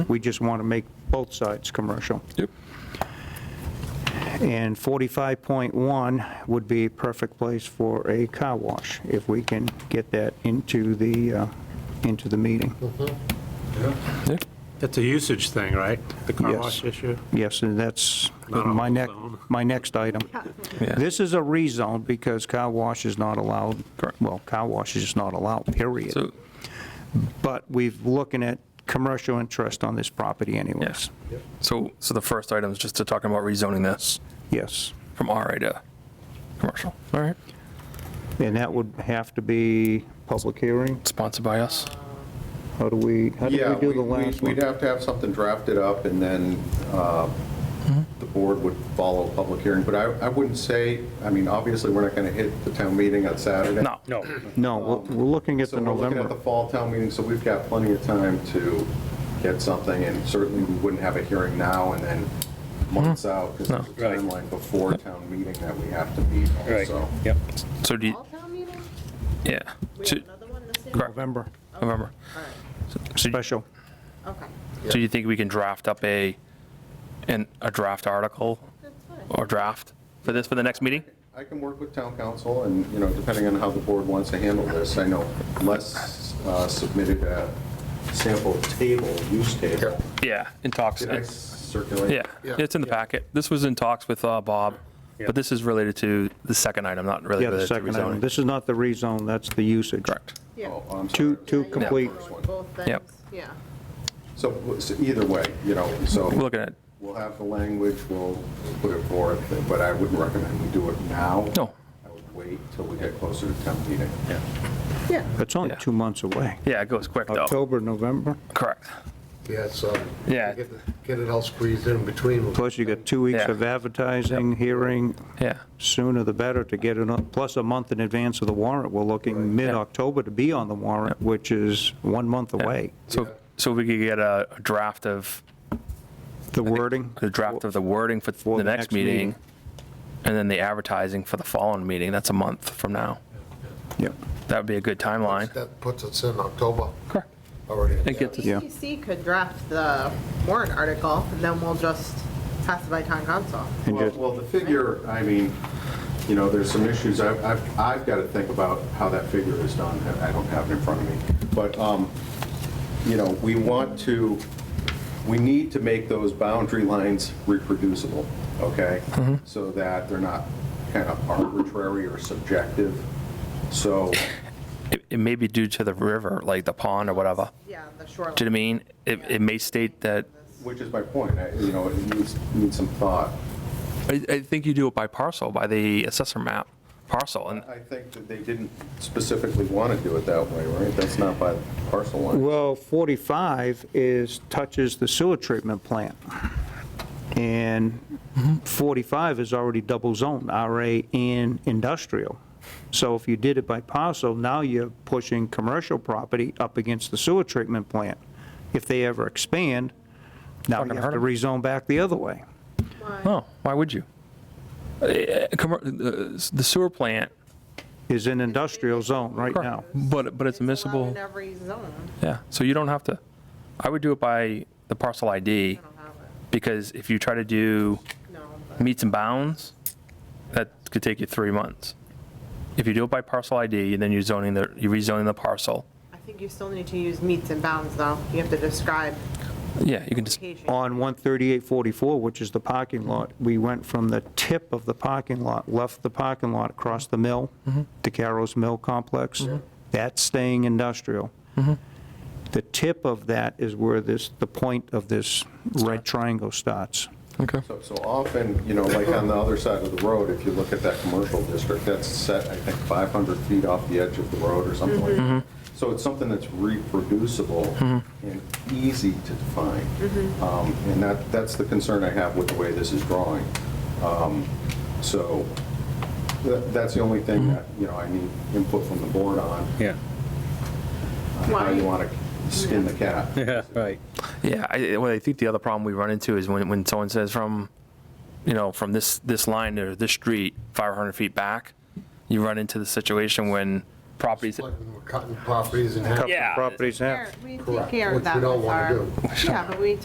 We just want to make both sides commercial. Yep. And 45.1 would be a perfect place for a car wash, if we can get that into the, uh, into the meeting. Yep. That's a usage thing, right? The car Yes. wash issue? Yes, and that's Not on my the next, zone. my next item. Yeah. This is a rezone because car wash is not allowed. Correct. Well, car wash is not allowed, period. So, But we've looking at commercial interest on this property anyways. yes. So, so the first item is just to talking about rezoning this Yes. from RA to commercial. All right. And that would have to be public hearing? Sponsored by us. How do we, how do Yeah, we do the last one? We'd have to have something drafted up, and then uh, Mm-hmm. the board would follow a public hearing. But I I wouldn't say, I mean, obviously, we're not going to hit the town meeting on Saturday. No. No. No, we're we're looking at So the we're looking at the November. fall town meeting, so we've got plenty of time to get something, and certainly we wouldn't have a hearing now and then months out, because there's a Mm-hmm. Right. timeline before town meeting that we have to meet Right, also. yep. So do you, All town meeting? yeah. We So- have another one this year? Correct. November, November. All So you- special. right, okay. so you think we can draft up a, an, a draft article That's fine. or draft for this, for the next meeting? I can work with town council, and, you know, depending on how the board wants to handle this, I know Les uh, submitted a sample table, use table. Yeah, in talks. Did I circulate? Yeah, it's in the packet. This was in talks with uh, Bob, but this is related to the second item, not really Yeah, the related to second item. rezoning. This is not the rezone, that's the usage. Correct. Yeah. Oh, I'm Two, sorry. two Yeah, you're complete, working on Both Yep. things, yeah. So so either way, you know, so We're looking at, we'll have the language, we'll put it forth, but I wouldn't recommend we do it now. No. I would wait till we get closer to town meeting. Yeah, it's only Yeah. two months away. yeah, it goes quick though. October, November, Correct. Yeah, so. Yeah. Get get it all squeezed in between. plus you got two weeks Yeah. of advertising, hearing, Yeah, sooner the better to get it, up. plus a month in advance of the warrant. We're looking mid-October to be on the warrant, which is one month away. so, so we could get a a draft of, The wording? the draft of the wording for For the next meeting, and then the advertising for the following meeting, that's a month from now. Yep, That would be a good timeline. That puts us in October Correct. already. It gets us, Yeah. TC E could draft the warrant article, and then we'll just pass it by town council. and Well, just, well, the figure, I mean, you know, there's some issues, I've, I've, I've got to think about how that figure is done, I I don't have it in front of me. But, um, you know, we want to, we need to make those boundary lines reproducible, okay? So that they're not kind of arbitrary or subjective. So, it- it may be due to the river, like the pond or whatever. Yeah, the shoreline. Do you know what I mean? It, it may state that, which is my point, I- you know, it needs, needs some thought. I, I think you do it by parcel, by the assessor map parcel, and I think that they didn't specifically want to do it that way, right? That's not by parcel line. well, 45 is, touches the sewer treatment plant. And 45 is already double zone, RA and industrial. So if you did it by parcel, now you're pushing commercial property up against the sewer treatment plant. If they ever expand, now you Fucking have hurt to 'em. rezone back the other way. No, why would you? Uh, commer- uh, The sewer plant, is an industrial zone right now. Correct. but, but it's It's allowed admissible, in every zone. yeah, so you don't have to, I would do it by the parcel ID, I don't have it. because if you try to do No, but meets and bounds, that could take you three months. If you do it by parcel ID, and then you're zoning the, you're rezoning the parcel, I think you still need to use meets and bounds, though. You have to describe yeah, you can just, location. On 13844, which is the parking lot, we went from the tip of the parking lot, left the parking lot across the mill, to Carroll's Mill Complex. That's staying industrial. The tip of that is where this, the point of this red triangle starts. okay, So- So often, you know, like on the other side of the road, if you look at that commercial district, that's set, I think, 500 feet off the edge of the road or something like that. Mm-hmm. So it's something that's reproducible and easy to define. Um, And that, that's the concern I have with the way this is drawing. Um, So tha- that's the only thing that, you know, I need input from the board on, Mm-hmm. Yeah, on how you Why? want to skin the cat. yeah, right. yeah, I, well, I think the other problem we run into is when, when someone says from, you know, from this, this line or this street, 500 feet back, you run into the situation when properties. flooding, we're cutting properties in half. Couple Yeah. properties now. Care- We take Correct, care of which that we don't with wanna our. do. Yeah, but we